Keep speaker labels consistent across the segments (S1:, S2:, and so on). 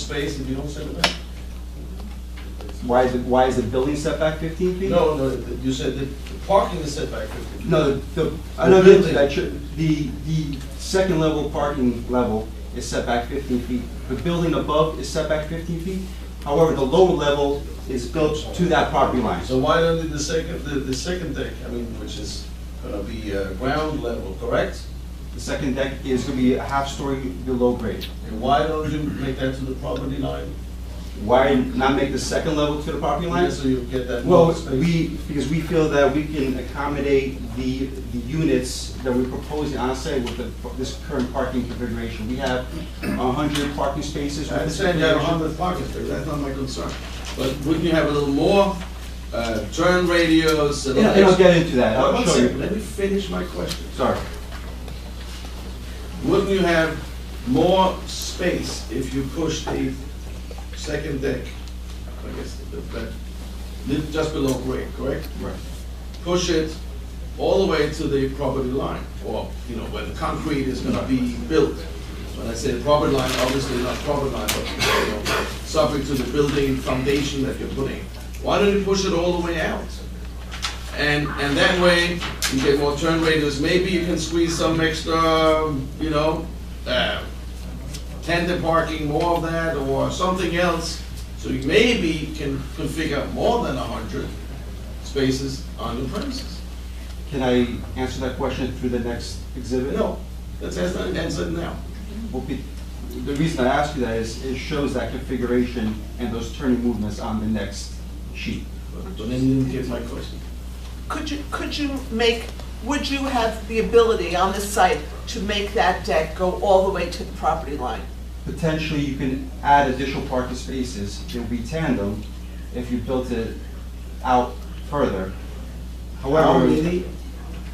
S1: space and you don't send it back?
S2: Why is it, why is the building setback fifteen feet?
S1: No, no, th- you said that the parking is set back fifty feet.
S2: No, the, I
S1: The
S2: know
S1: building.
S2: that, I tr- the, the second level parking level is set back fifteen feet. The building above is set back fifteen feet, however, the lower level is built to that property line.
S1: So why don't you the second, the, the second deck, I mean, which is gonna be uh, ground level, correct?
S2: The second deck is gonna be a half story below grade.
S1: And why don't you make that to the property line?
S2: Why not make the second level to the property line?
S1: So you get that more
S2: Well,
S1: space?
S2: we, because we feel that we can accommodate the, the units that we're proposing on site with the, this current parking configuration. We have a hundred parking spaces.
S1: I
S2: with this
S1: understand you have a hundred
S2: configuration.
S1: parking spaces, that's not my concern. But wouldn't you have a little more, uh, turn radios? and
S2: Yeah, and I'll get into that, I'll
S1: One
S2: show
S1: second,
S2: you.
S1: let me finish my question.
S2: Sorry,
S1: Wouldn't you have more space if you push the second deck? I guess, that- that- li- just below grade, correct?
S2: Right.
S1: Push it all the way to the property line, or, you know, where the concrete is gonna be built. When I say property line, obviously not property line, but, you know, subject to the building foundation that you're putting. Why don't you push it all the way out? And, and that way, you get more turn radius, maybe you can squeeze some extra, you know, uh, tandem parking, more of that, or something else. So you maybe can configure more than a hundred spaces on your premises.
S2: can I answer that question through the next exhibit?
S1: No, that's, that's not answered now.
S2: Well, be- The reason I ask you that is, it shows that configuration and those turning movements on the next sheet.
S1: But then you didn't get my question.
S3: Could you, could you make, would you have the ability on this site to make that deck go all the way to the property line?
S2: Potentially, you can add additional parking spaces, it would be tandem if you built it out further.
S1: How
S2: However,
S1: many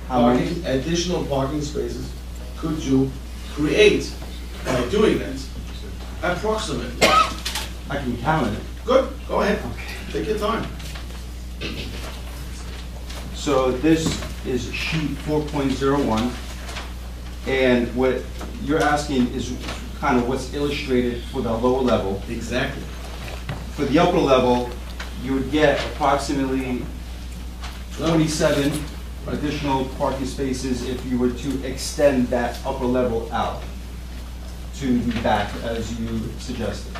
S2: how many-
S1: parking, additional parking spaces could you create by doing that? Approximately.
S2: I can count it.
S1: Good, go ahead, take your time.
S2: So this is sheet four point zero one, and what you're asking is kind of what's illustrated for the lower level.
S1: Exactly.
S2: For the upper level, you would get approximately twenty-seven additional parking spaces if you were to extend that upper level out to the back, as you suggested.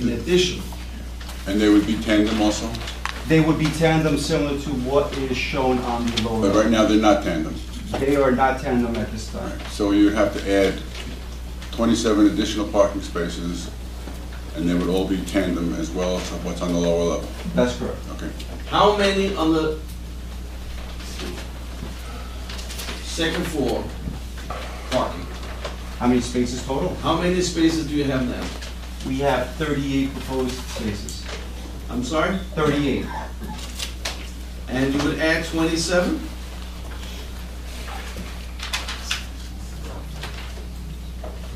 S1: In addition,
S4: And they would be tandem also?
S2: They would be tandem similar to what is shown on the lower
S4: But
S2: level.
S4: right now, they're not tandem.
S2: They are not tandem at this time.
S4: So you'd have to add 27 additional parking spaces, and they would all be tandem as well as what's on the lower level.
S2: That's correct.
S4: Okay.
S1: how many on the second floor parking?
S2: How many spaces total?
S1: How many spaces do you have now?
S2: We have 38 proposed spaces.
S1: I'm sorry?
S2: 38.
S1: And you would add twenty-seven?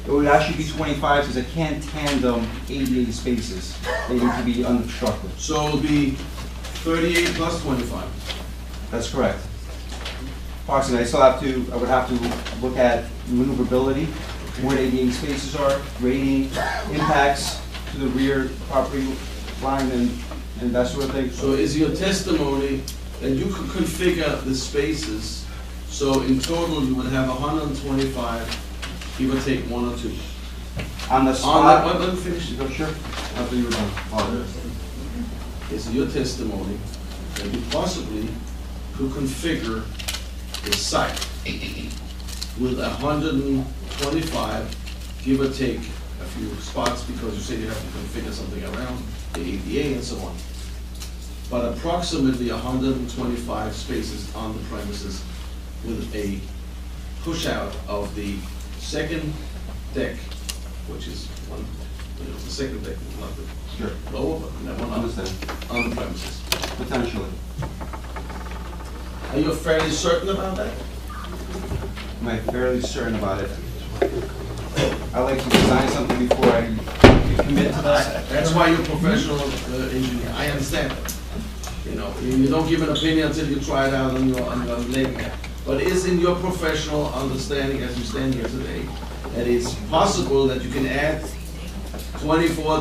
S2: It would actually be 25 because I can't tandem 88 spaces. They need to be unobstructed.
S1: So it'll be thirty-eight plus twenty-five.
S2: That's correct. Approximately, I still have to, I would have to look at maneuverability, where the 88 spaces are, grading, impacts to the rear property line and, and that sort of thing.
S1: So is your testimony that you could configure the spaces, so in total you would have hundred and twenty-five, give or take one or two?
S2: On the
S1: On that,
S2: spot.
S1: let let me finish.
S2: Go, Sure. I thought you were done. Oh, Apologize.
S1: is your testimony that you possibly could configure the site with hundred and twenty-five, give or take a few spots, because you said you have to configure something around the ADA and so on. But approximately hundred and twenty-five spaces on the premises with a push-out of the second deck, which is one, you know, the second deck, not the
S2: Sure,
S1: lower, but that one on the
S2: understand,
S1: on the premises.
S2: potentially.
S1: Are you fairly certain about that?
S2: Am I fairly certain about it? I like to design something before I commit to that.
S1: That's why you're a professional uh, engineer, I understand that. You know, you you don't give an opinion until you try it out on your, on your leg. But is in your professional understanding, as you stand here today, that it's possible that you can add twenty-four